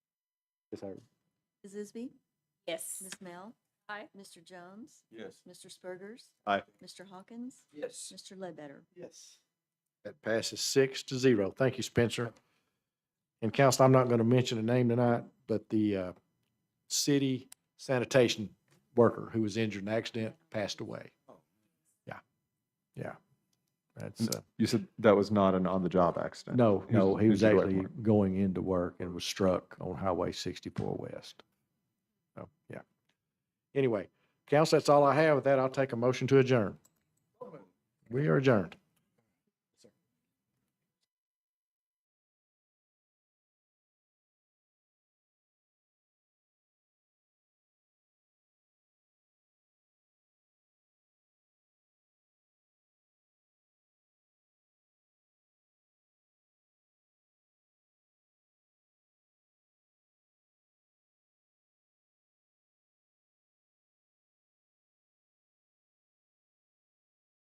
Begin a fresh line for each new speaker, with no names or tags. Ms. Harvey?
Ms. Isby?
Yes.
Ms. Mel?
Aye.
Mr. Jones?
Yes.
Mr. Spurgers?
Aye.
Mr. Hawkins?
Yes.
Mr. Ledbetter?
Yes.
That passes six to zero. Thank you, Spencer. And council, I'm not going to mention a name tonight, but the uh, city sanitation worker who was injured in an accident passed away. Yeah, yeah. That's, uh,
You said that was not an on-the-job accident?
no,
He
no, he was
injured at
actually
work.
going into work and was struck on Highway 64 West. So, yeah. Anyway, council, that's all I have. With that, I'll take a motion to adjourn. We are adjourned.